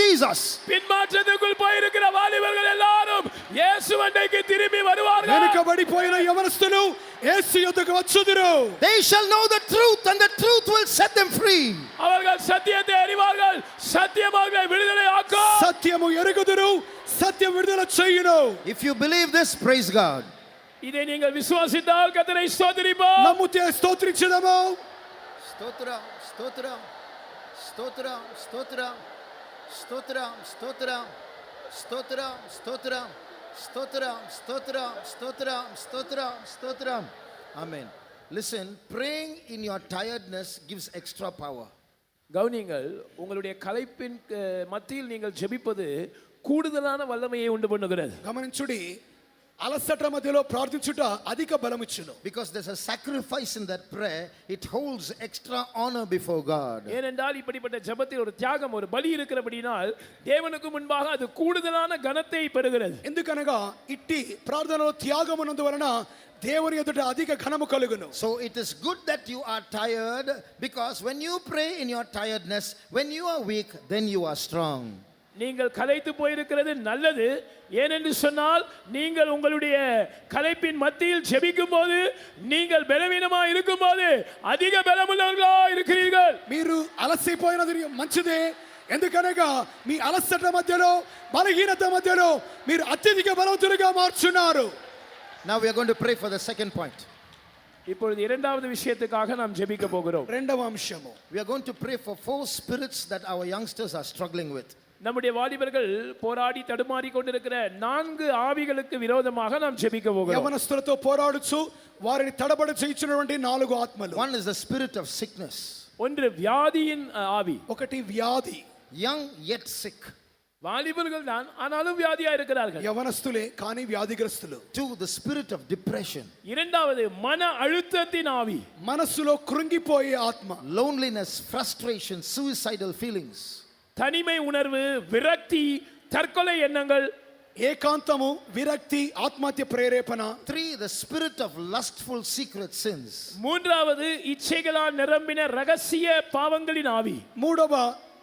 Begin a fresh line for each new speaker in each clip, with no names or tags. Jesus.
பின்மாற்றத்துக்குள் போயிருக்கிற வாலிபர்கள் எல்லாரும் இயேசு அன்றைக்கு திரும்பி வருவார்கள்
వెనుకబడిపోయిన యవనస్తులు యేసు యొద్దకు వచ్చుదురు
They shall know the truth, and the truth will set them free.
அவர்கள் சத்தியத்தை அறிவார்கள் சத்தியம் அவர்களை விடுதலை ஆக்கும்
సత్యము ఎరుగుదురు సత్యం విడుదల చేయును
If you believe this, praise God.
இதை நீங்கள் விசுவாசித்தால் கத்தனை ஸ்தோத்திரிப்போம்
నమ్ముతే స్తోత్రించదము
Stotram, stotram, stotram, stotram, stotram, stotram, stotram, stotram, stotram, stotram, stotram, stotram, stotram. Amen. Listen, praying in your tiredness gives extra power.
கவனியங்கள் உங்களுடைய கலைப்பின் அஹ், மத்தியில் நீங்கள் ஜெபிப்பது கூடுதலான வல்லமையை உண்டு பண்ணுகிறது
గమనించుడి అలసట మధ్యలో ప్రార్థించుట అధిక బలమిచ్చును
Because there's a sacrifice in that prayer, it holds extra honor before God.
ஏனென்றால் இப்படிப்பட்ட ஜெபத்தில் ஒரு தியாகம் ஒரு பலி இருக்கிறபடினால் தேவனுக்கு முன்பாக அது கூடுதலான கனத்தை பெறுகிறது
ఎందుకనగా ఇట్టి ప్రార్థనలో త్యాగమునందు వలన దేవుని ఎదుట అధిక ఘనము కలుగును
So it is good that you are tired because when you pray in your tiredness, when you are weak, then you are strong.
நீங்கள் கலைத்து போயிருக்கிறது நல்லது ஏனென்று சொன்னால் நீங்கள் உங்களுடைய கலைப்பின் மத்தியில் ஜெபிக்கும் போது நீங்கள் பலவீனமாக இருக்கும்போது அதிக பலமுள்ளவர்களா இருக்கிறீர்கள்
మీరు అలసిపోయినది మంచిదే ఎందుకనగా మీ అలసట మధ్యలో బలహీనత మధ్యలో మీరు అత్యధిక బలవంతులుగా మార్చున్నారు
Now we are going to pray for the second point.
இப்பொழுது இரண்டாவது விஷயத்துக்காக நாம் ஜெபிக்க போகிறோம்
రెండవ అంశము
We are going to pray for four spirits that our youngsters are struggling with.
நம்முடைய வாலிபர்கள் போராடி தடுமாறி கொண்டிருக்கிற நான்கு ஆவிகளுக்கு விரோதமாக நாம் ஜெபிக்க போகிறோம்
యవనస్తులతో పోరాడుచు వారిని తడబడి చేయించినటువంటి నాలుగు ఆత్మలు
One is the spirit of sickness,
ஒன்று வியாதியின் அஹ், ஆவி
ఒకటి వ్యాధి
young yet sick.
வாலிபர்கள் தான் ஆனாலும் வியாதியா இருக்கிறார்கள்
యవనస్తులే కానీ వ్యాధిగ్రస్తులు
Two, the spirit of depression,
இரண்டாவது மன அழுத்தத்தின் ஆவி
మనస్సులో కృంగిపోయే ఆత్మ
loneliness, frustration, suicidal feelings.
தனிமை உணர்வு விரக்தி தற்கொலை எண்ணங்கள்
ఏకాంతము విరక్తి ఆత్మహత్య ప్రేరేపణ
Three, the spirit of lustful secret sins.
மூன்றாவது இச்சைகளால் நிரம்பின ரகசிய பாவங்களின் ஆவி
మూడవ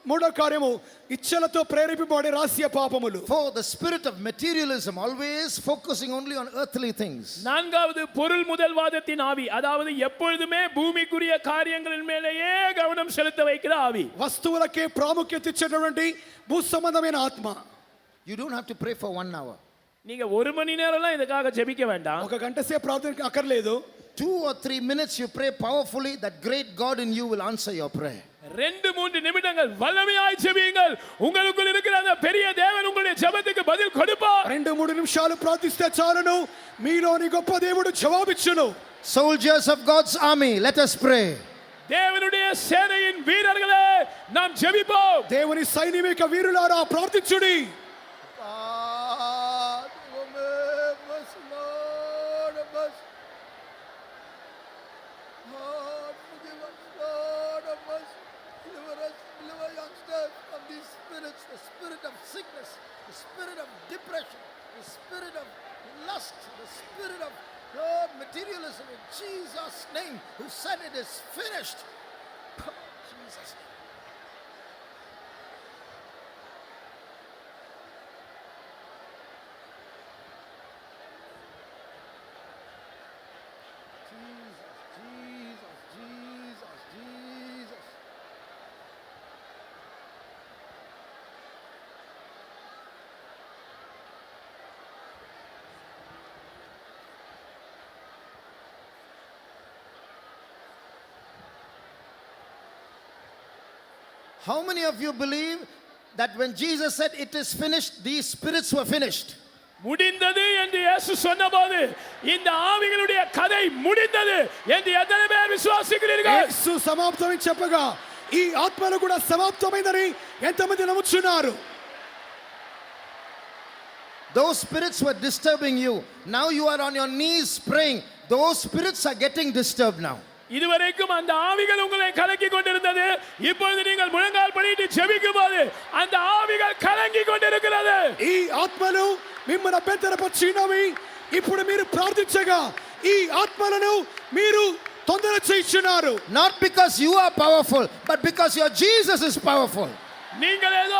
మూడో కార్యము ఇచ్చలతో ప్రేరేపబడే రహస్య పాపములు
Four, the spirit of materialism, always focusing only on earthly things.
நான்காவது பொருள் முதல்வாதத்தின் ஆவி அதாவது எப்பொழுதுமே பூமிக்குரிய காரியங்களின் மேலேயே கவனம் செலுத்த வைக்கிற ஆவி
వస్తువులకే ప్రాముఖ్యత ఇచ్చేటటువంటి భూ సంబంధమైన ఆత్మ
You don't have to pray for one hour.
நீங்க ஒரு மணி நேரம்லாம் இதுக்காக ஜெபிக்க வேண்டாம்
ఒక గంట సేపు ప్రార్థన అక్కర్లేదు
Two or three minutes you pray powerfully, that great God in you will answer your prayer.
ரெண்டு மூன்று நிமிடங்கள் வல்லமையாய் ஜெபியுங்கள் உங்களுக்குள் இருக்கிற அந்த பெரிய தேவன் உங்களுடைய ஜெபத்துக்கு பதில் கொடுப்பார்
రెండు మూడు నిమిషాలు ప్రార్థిస్తే చాలును మీలోని గొప్ప దేవుడు జవాబిచ్చును
Soldiers of God's army, let us pray.
தேவனுடைய சேனையின் வீரர்களே நாம் ஜெபிப்போம்
దేవుని సైనిక వీరులారా ప్రార్థించుడి
God, remove us, Lord, of us. Lord, forgive us, Lord, of us. Deliver us, deliver youngsters from these spirits, the spirit of sickness, the spirit of depression, the spirit of lust, the spirit of Lord, materialism in Jesus' name, who said it is finished. Jesus' name. Jesus, Jesus, Jesus, Jesus. How many of you believe that when Jesus said it is finished, these spirits were finished?
முடிந்தது என்று இயேசு சொன்னபோது இந்த ஆவிகளுடைய கதை முடிந்தது என்று எத்தனை பேர் விசுவாசிக்கிறீர்கள்
యేసు సమాప్తమని చెప్పగా ఈ ఆత్మలు కూడా సమాప్తమైందని ఎంతమంది నమ్ముచున్నారు
Those spirits were disturbing you. Now you are on your knees praying. Those spirits are getting disturbed now.
இதுவரைக்கும் அந்த ஆவிகள் உங்களை கலக்கி கொண்டிருந்தது இப்பொழுது நீங்கள் முழங்கால் பண்ணிட்டு ஜெபிக்கும் போது அந்த ஆவிகள் கலங்கி கொண்டிருக்கிறது
ఈ ఆత్మలు మిమ్మల్ని అభ్యంతరపరిచినవి ఇప్పుడు మీరు ప్రార్థించగా ఈ ఆత్మలను మీరు తొందర చేయించున్నారు
Not because you are powerful, but because your Jesus is powerful.
நீங்கள் ஏதோ